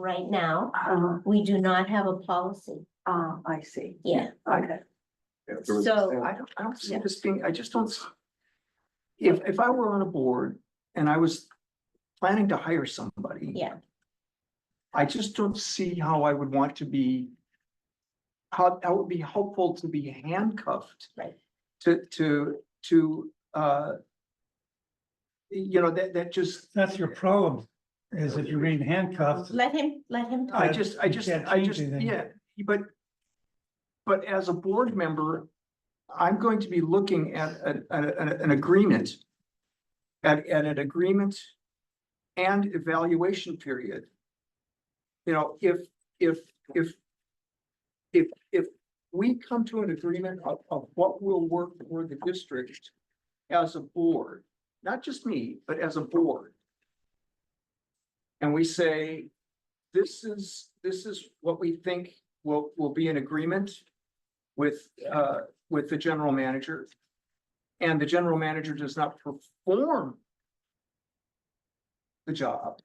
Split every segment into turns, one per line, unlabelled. right now.
Uh,
We do not have a policy
uh, I see.
yet.
Okay,
So-
I don't, I don't see
Yeah.
this being, I just don't. s- If, if I were on a board and I was planning to hire somebody.
Yeah.
I just don't see how I would want to be. How, that would be helpful to be handcuffed.
Right.
To, to, to, uh. You know, that, that just,
That's your problem, is if you remain handcuffed,
Let him, let him
I
talk.
just, I
you
just,
can't
I
change
just,
anything.
yeah, but. But as a board member, I'm going to be looking at, an- an- an, an agreement. At, at an agreement and evaluation period. You know, if, if, if. If, if we come to an agreement of, of what will work for the district as a board, not just me, but as a board. And we say, this is, this is what we think will, will be in agreement with, uh, with the general manager. And the general manager does not perform the job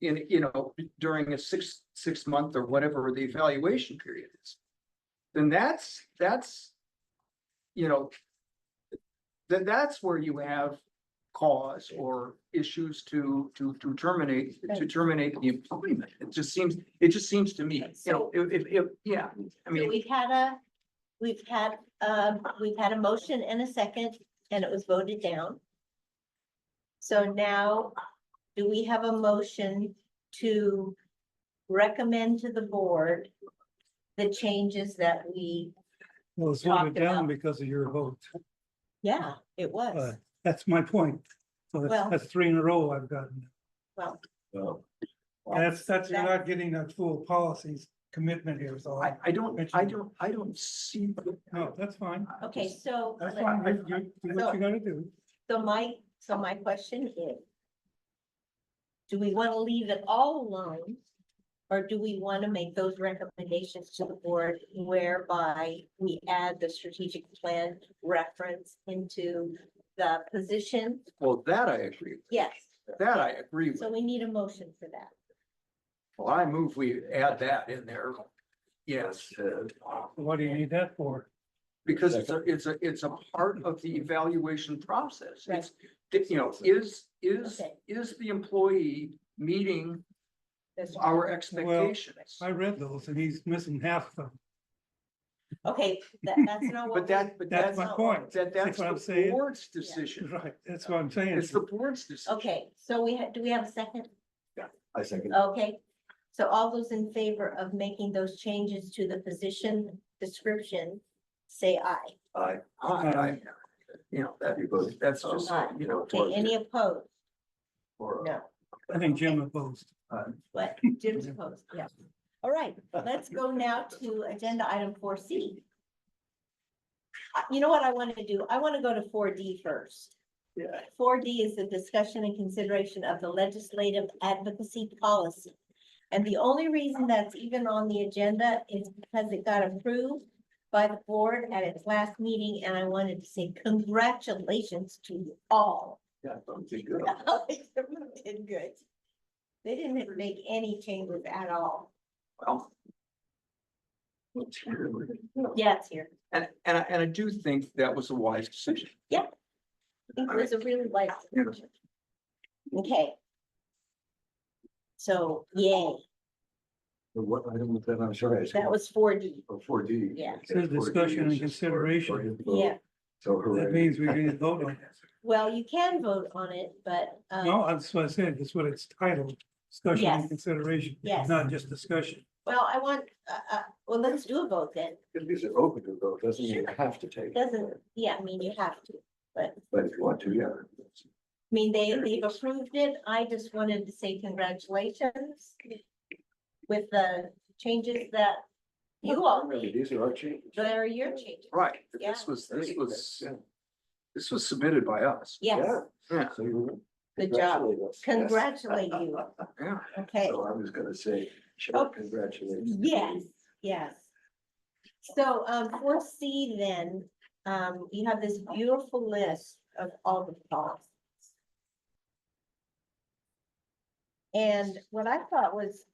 in, you know, during a six, six month or whatever the evaluation period is. Then that's, that's, you know, then that's where you have cause or issues to, to, to terminate, to
Right.
terminate the employment. It just seems, it just seems to me, you know, if, if, if, yeah, I
So
mean,
We've had a, we've had, uh, we've had a motion and a second, and it was voted down. So now, do we have a motion to recommend to the board the changes that we,
well, it's voted down because of your vote.
yeah, it was.
Uh, That's my point. So
Well-
that's, that's three in a row I've gotten.
Well,
That's, that's, you're
That-
not getting that full policies commitment here, so
I,
I,
I don't, I don't, I don't see. the-
no, that's fine.
okay, so.
That's
let-
fine. You- you do what you gotta do.
So my, so my question is. Do we want to leave it all alone? Or do we want to make those recommendations to the board whereby we add the strategic plan reference into the position?
Well, that I agree, with.
Yes,
that I agree with.
so we need a motion for that.
Well, I move we add that in there. Yes,
What do you need that for?
because it's a, it's a, it's a part of the evaluation process.
Right.
It's, it's, you know, is, is,
Okay.
is the employee meeting
That's-
our expectations?
I read those and he's missing half of them.
Okay, that, that's not what.
But that, but
That's
that's,
my
not-
point.
that, that's
That's what I'm
the
saying.
board's decision.
Right, that's what I'm saying.
It's the board's
we-
decision.
Okay, so we, ha- do we have a second?
I second.
Okay, so all those in favor of making those changes to the position description, say aye.
I,
I,
Um,
I, you know, that,
You voted.
that's just,
Aye.
you know.
Okay, any opposed? No,
I think Jim opposed.
uh,
but Jim's opposed, yeah. All right, let's go now to agenda item four C. Uh, You know what I want to do? I want to go to four D first.
Yeah.
Four D is the discussion and consideration of the legislative advocacy policy. And the only reason that's even on the agenda is because it got approved by the board at its last meeting, and I wanted to say congratulations to you all.
yeah, don't think good.
Did good. They didn't make any changes at all.
Well,
Yeah, it's here.
And, and I, and I do think that was a wise decision.
I think It was a really light. decision. Okay. So, yay,
But What item was that? I'm sorry. I
that was four D.
Four D.
Yeah.
Says discussion and consideration.
Yeah,
So
That
hooray.
means we didn't vote on it.
well, you can vote on it, but, um,
No, that's what I said, that's what it's titled, discussion
Yes.
and consideration,
Yes.
not just discussion.
well, I want, uh, uh, well, let's do a vote then.
At least it's open to vote, doesn't mean you have to take. it.
Doesn't, yeah, I mean, you have to.
But if you want to, yeah.
I mean, they, they've approved it. I just wanted to say congratulations with the changes that you all
Really,
made.
These are our changes.
There are your changes.
Right,
Yeah.
this was, this
Great.
was,
Yeah.
this was submitted by us.
Yes,
Yeah. So you.
good job.
congratulate us. Yes.
Congratulate you.
Yeah.
Okay,
So I was gonna say,
Oh.
sure, congratulations.
yes, yes. So um four C then, um you have this beautiful list of all the policies. And what I thought was